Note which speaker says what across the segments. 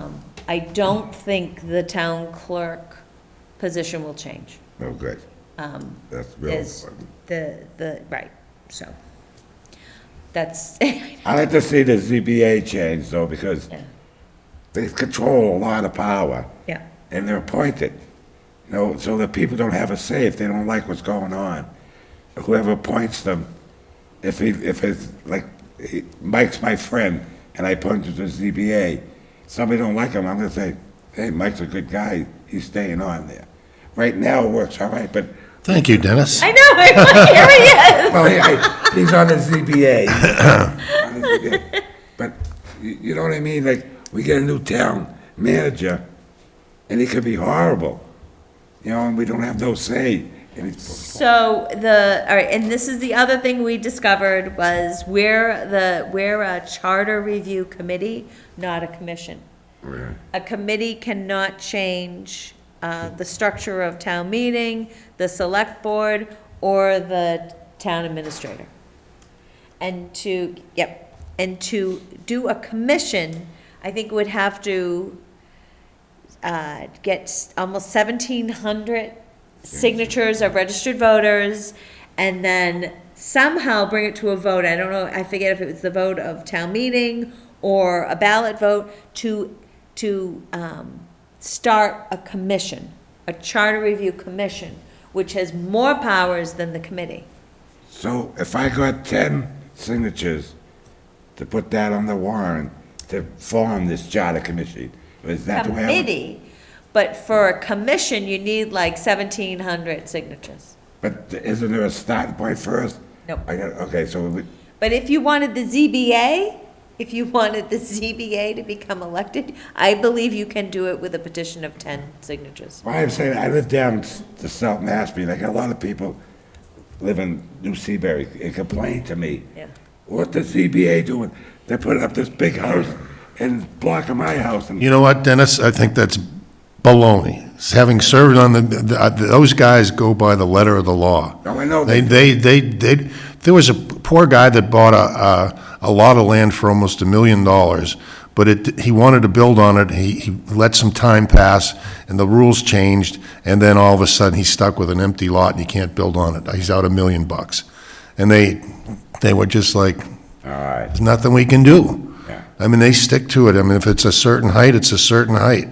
Speaker 1: Um, I don't think the town clerk position will change.
Speaker 2: Oh, good. That's real
Speaker 1: Um, Is
Speaker 2: important.
Speaker 1: the, the, right, so. That's,
Speaker 2: I like to see the ZBA change though, because
Speaker 1: Yeah.
Speaker 2: they control a lot of power
Speaker 1: yeah,
Speaker 2: and they're appointed. You know, so the people don't have a say if they don't like what's going on. Whoever appoints them, if he, if it's like, he- Mike's my friend and I appoint him to ZBA, somebody don't like him, I'm gonna say, hey, Mike's a good guy, he's staying on there. Right now it works all right, but
Speaker 3: Thank you, Dennis.
Speaker 1: I know, here he is.
Speaker 2: Well, he- I- he's on the ZBA. On the ZBA. But you you know what I mean? Like, we get a new town manager, and he could be horrible, you know, and we don't have no say. And it's-
Speaker 1: So the, all right, and this is the other thing we discovered was we're the, we're a charter review committee, not a commission. A committee cannot change uh, the structure of town meeting, the select board, or the town administrator. And to, yep, and to do a commission, I think would have to uh, get s- almost 1,700 signatures of registered voters, and then somehow bring it to a vote. I don't know, I forget if it was the vote of town meeting or a ballot vote to, to um, start a commission, a charter review commission, which has more powers than the committee.
Speaker 2: So if I got 10 signatures to put that on the warrant to form this charter commission, is that the way? I would-
Speaker 1: Committee, but for a commission, you need like 1,700 signatures.
Speaker 2: But isn't there a starting point first?
Speaker 1: Nope.
Speaker 2: I got, okay, so we-
Speaker 1: But if you wanted the ZBA, if you wanted the ZBA to become elected, I believe you can do it with a petition of 10 signatures.
Speaker 2: Well, I'm saying, I live down s- the South Mashpee, like a lot of people live in New Seabury, and complain to me.
Speaker 1: Yeah.
Speaker 2: What the CBA doing? They're putting up this big house and blocking my house and.
Speaker 3: You know what, Dennis? I think that's baloney. Having served on the, the- uh, those guys go by the letter of the law.
Speaker 2: Oh, I know
Speaker 3: They, they, they, they, there was a poor guy that bought a, a, a lot of land for almost a million dollars, but it, he wanted to build on it. He, he let some time pass, and the rules changed, and then all of a sudden, he's stuck with an empty lot and he can't build on it. He's out a million bucks. And they, they were just like,
Speaker 2: All right,
Speaker 3: there's nothing we can do.
Speaker 2: Yeah.
Speaker 3: I mean, they stick to it. I mean, if it's a certain height, it's a certain height.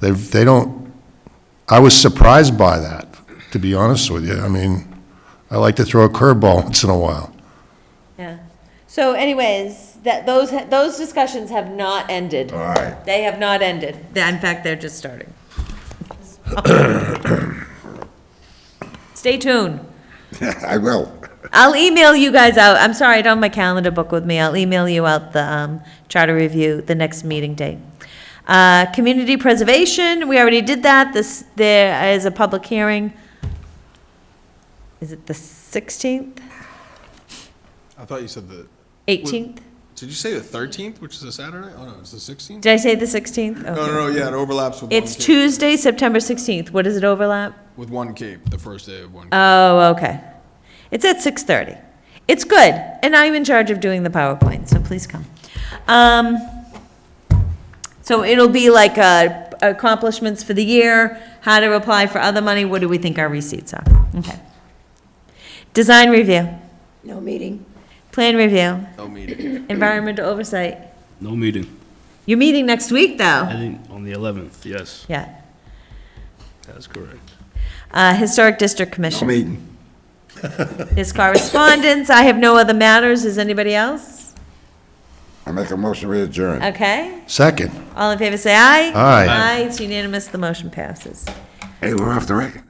Speaker 3: They, they don't, I was surprised by that, to be honest with you. I mean, I like to throw a curveball once in a while.
Speaker 1: Yeah. So anyways, that, those, those discussions have not ended.
Speaker 2: all right.
Speaker 1: They have not ended. In fact, they're just starting. Stay tuned.
Speaker 2: I will.
Speaker 1: I'll email you guys out. I'm sorry, I don't have my calendar book with me. I'll email you out the um, charter review, the next meeting date. Uh, Community preservation, we already did that. This, there is a public hearing. Is it the 16th,
Speaker 4: I thought you said the.
Speaker 1: 18th?
Speaker 4: Did you say the thirteenth, which is a Saturday? Oh no, it's the sixteenth.
Speaker 1: Did I say the 16th?
Speaker 4: No,
Speaker 1: Okay.
Speaker 4: no, no. Yeah, it overlaps with.
Speaker 1: It's
Speaker 4: one Cape,
Speaker 1: Tuesday, September 16th. What does it overlap?
Speaker 4: With one Cape, the first day of one. Cape.
Speaker 1: Oh, okay. It's at six thirty. It's good, and I'm in charge of doing the PowerPoint, so please come. Um, so it'll be like, uh, accomplishments for the year, how to apply for other money, what do we think our receipts are? Okay. Design review,
Speaker 5: No meeting.
Speaker 1: plan review,
Speaker 4: no meeting.
Speaker 1: environmental oversight.
Speaker 6: No meeting.
Speaker 1: You're meeting next week,
Speaker 6: I
Speaker 1: though.
Speaker 6: think on the 11th, yes,
Speaker 1: Yeah.
Speaker 6: that's correct.
Speaker 1: Uh, Historic District
Speaker 2: I
Speaker 1: Commission.
Speaker 2: mean,
Speaker 1: His correspondence, I have no other matters, is anybody else?
Speaker 2: I make a motion to adjourn.
Speaker 1: Okay.
Speaker 3: Second.
Speaker 1: All in favor, say aye.
Speaker 3: Aye.
Speaker 1: Aye, it's unanimous, the motion passes.
Speaker 2: Hey, we're off the record.